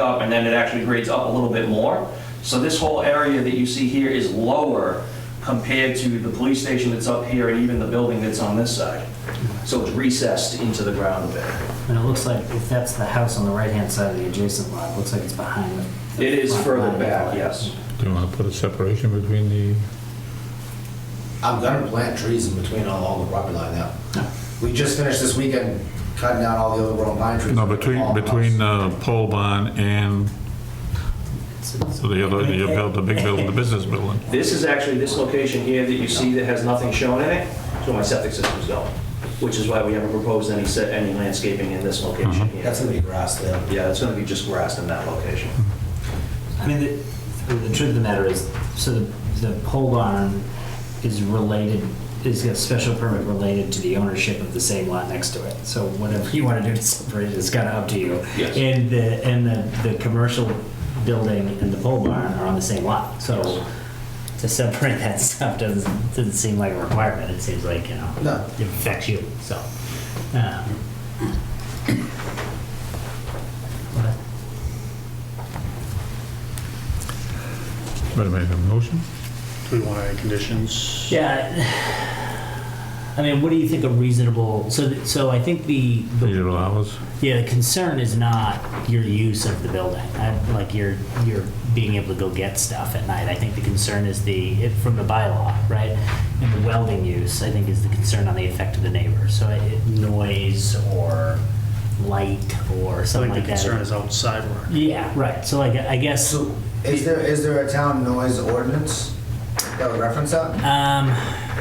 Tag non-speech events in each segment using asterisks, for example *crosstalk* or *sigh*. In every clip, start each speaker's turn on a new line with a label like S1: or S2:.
S1: up, and then it actually grades up a little bit more. So this whole area that you see here is lower compared to the police station that's up here and even the building that's on this side. So it's recessed into the ground a bit.
S2: And it looks like if that's the house on the right-hand side of the adjacent lot, it looks like it's behind the.
S1: It is
S2: front
S1: further
S2: line of the
S1: back,
S2: lot.
S1: yes.
S3: Do you want to put a separation between the,
S4: I'm gonna plant trees in between all, all the property line now.
S2: No.
S4: We just finished this weekend cutting down all the overgrown pine trees.
S3: no, between,
S4: All of us.
S3: between uh, pole barn and
S2: It's- it's-
S3: the other, the build, the big building, the business building?
S1: This is actually this location here that you see that has nothing shown in it, is where my septic system's going, which is why we haven't proposed any set, any landscaping in this location here.
S4: That's gonna be grass there.
S1: Yeah, it's gonna be just grass in that location.
S2: I mean, the, I mean, the truth of the matter is, so the, the pole barn is related, is a special permit related to the ownership of the same lot next to it. So whatever you want to do to separate it, it's kind of up to you.
S1: Yes.
S2: And the, and the, the commercial building and the pole barn are on the same lot. So to separate that *laughs* stuff doesn't, doesn't seem like a requirement. It seems like, you know,
S4: No.
S2: it affects you, so. uh, but-
S3: Better make a motion?
S5: Do we want any conditions?
S2: Yeah. *sighs* I mean, what do you think a reasonable, so, th- so I think the, the,
S3: Reasonable hours?
S2: yeah, the concern is not your use of the building. I- Like your, your being able to go get stuff at night. I think the concern is the, it- from the bylaw, right? And the welding use, I think, is the concern on the effect of the neighbor. So it- it- noise or light or
S5: I
S2: something
S5: think the
S2: like that.
S5: concern is outside work.
S2: Yeah, right. So like, I guess,
S4: So is there, is there a town noise ordinance that would reference that?
S2: um,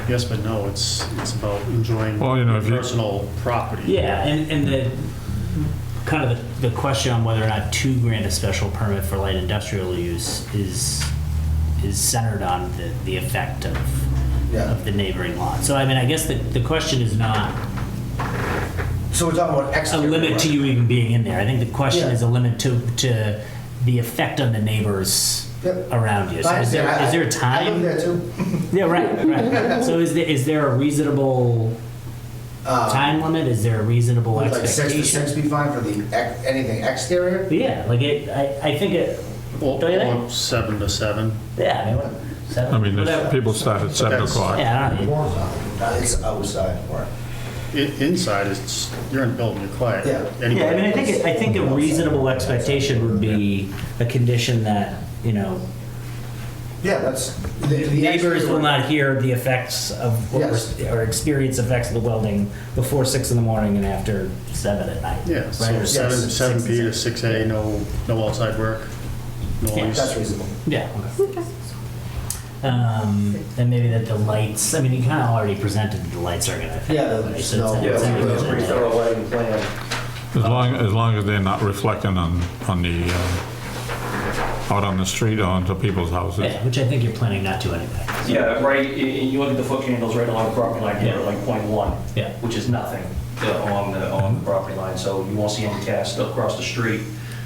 S5: Yes, but no, it's, it's about enjoying
S3: Well, you know, if you-
S5: personal property.
S2: Yeah, and, and the, kind of the, the question on whether or not to grant a special permit for light industrial use is, is centered on the, the effect of,
S4: Yeah.
S2: of the neighboring lot. So I mean, I guess the, the question is not
S4: So we're talking about
S2: a
S4: exterior.
S2: limit to you even being in there. I think the question
S4: Yeah.
S2: is a limit to, to the effect on the neighbors
S4: Yep.
S2: around you. So is there, is there a time?
S4: I live there too.
S2: Yeah, right, right. So is there, is there a reasonable
S4: Uh,
S2: time limit? Is there a reasonable
S4: Would like six
S2: expectation?
S4: to six be fine for the, ex- anything exterior?
S2: But yeah, like it, I, I think it,
S5: Or
S2: Don't you think?
S5: or seven to seven.
S2: yeah, I mean, what, seven?
S3: I mean,
S2: whatever.
S3: there's- people start at 7
S4: That's-
S3: o'clock.
S2: Yeah, I don't know.
S4: More than that. It's outside work.
S5: I- Inside, it's, you're in building, you're quiet.
S4: Yeah.
S5: Anybody
S2: Yeah, I mean, I think,
S5: else?
S2: it- I think a reasonable expectation would be a condition that, you know,
S4: Yeah, that's. the- the
S2: neighbors
S4: exterior-
S2: will not hear the effects of, or-
S4: Yes.
S2: or experience effects of the welding before six in the morning and after seven at night.
S5: Yeah,
S2: Right,
S5: so
S2: or
S5: seven,
S2: six-
S5: seven
S2: six
S5: P to
S2: and
S5: six A, no, no outside work,
S4: That's
S5: noise.
S4: reasonable.
S2: Yeah. Um, and maybe that the lights, I mean, you kind of already presented that the lights are gonna affect.
S4: Yeah,
S2: the
S4: the
S2: lights,
S4: snow.
S2: so
S1: Yeah,
S2: it's-
S1: we
S2: it's-
S1: have a pretty thorough lighting plan.
S3: As long, as long as they're not reflecting on, on the, uh, out on the street or onto people's houses.
S2: Yeah, which I think you're planning not to anyway.
S1: Yeah, right, i- i- you look at the foot candles right along the property line here,
S2: Yeah.
S1: like point one.
S2: Yeah.
S1: Which is nothing uh, on the, on the property line, so you won't see any cast across the street.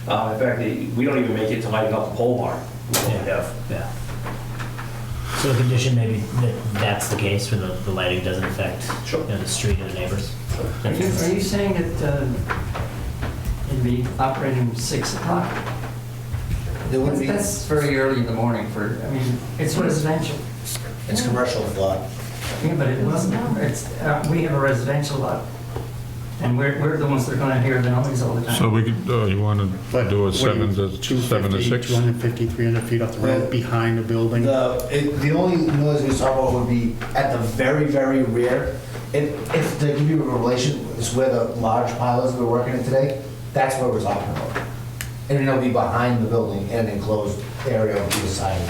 S1: Uh, In fact, they- we don't even make it to lighting up the pole barn. We only
S2: Yeah.
S1: have
S2: Yeah. So a condition maybe that that's the case where the, the lighting doesn't affect
S1: Sure.
S2: you know, the street or the neighbors.
S6: Are you, are you saying that uh, it'd be operating from six o'clock?
S4: There wouldn't be,
S6: That's that's very early in the morning for, I mean, it's residential.
S4: it's commercial lot.
S6: Yeah, but it wasn't, it's, uh, we have a residential lot, and we're, we're the ones that are gonna hear the noise all the
S3: So
S6: time.
S3: we could, uh, you want to
S5: But
S3: do a
S5: what do
S3: seven
S5: you-
S3: to,
S5: 250,
S3: seven to six?
S5: 250, 300 feet off the
S4: Well,
S5: road, behind the building.
S4: The, it, the only noise we talk about would be at the very, very rear. If, if there could be a relation, is where the large pile is we're working in today, that's where we're talking about. And it'll be behind the building in an enclosed area on the side of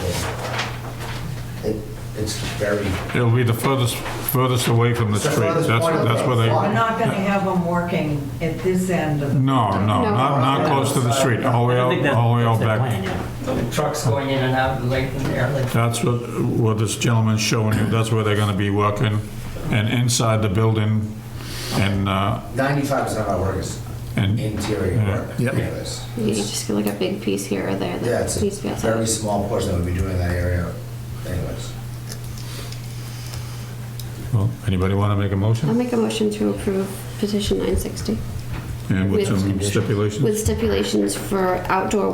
S4: the building. It, it's very,
S3: It'll be the furthest, furthest away from the
S4: It's the
S3: street.
S4: furthest
S3: That's,
S4: point of
S3: that's
S4: the
S3: where they,
S4: block.
S7: We're not going to have them working at this end of the...
S3: no, no, not, not close to the street, all the way
S2: I
S3: out,
S2: think that-
S3: all the way
S2: that's
S3: out
S2: their
S3: back.
S2: plan, yeah.
S6: The Trucks going in and out late in there, like,
S3: That's what, what this gentleman's showing you, that's where they're gonna be working, and inside the building, and, uh,
S4: ninety-five percent of our work is
S3: and,
S4: interior work.
S3: Yeah. Yep.
S4: anyways.
S8: You just get like a big piece here or there
S4: Yeah,
S8: that
S4: it's
S8: needs to be
S4: a
S8: outside.
S4: very small portion that would be doing that area anyways.
S3: well, anybody wanna make a
S8: I'll
S3: motion?
S8: make a motion to approve petition 960
S3: And with
S8: with-
S3: some stipulations?
S8: with stipulations for outdoor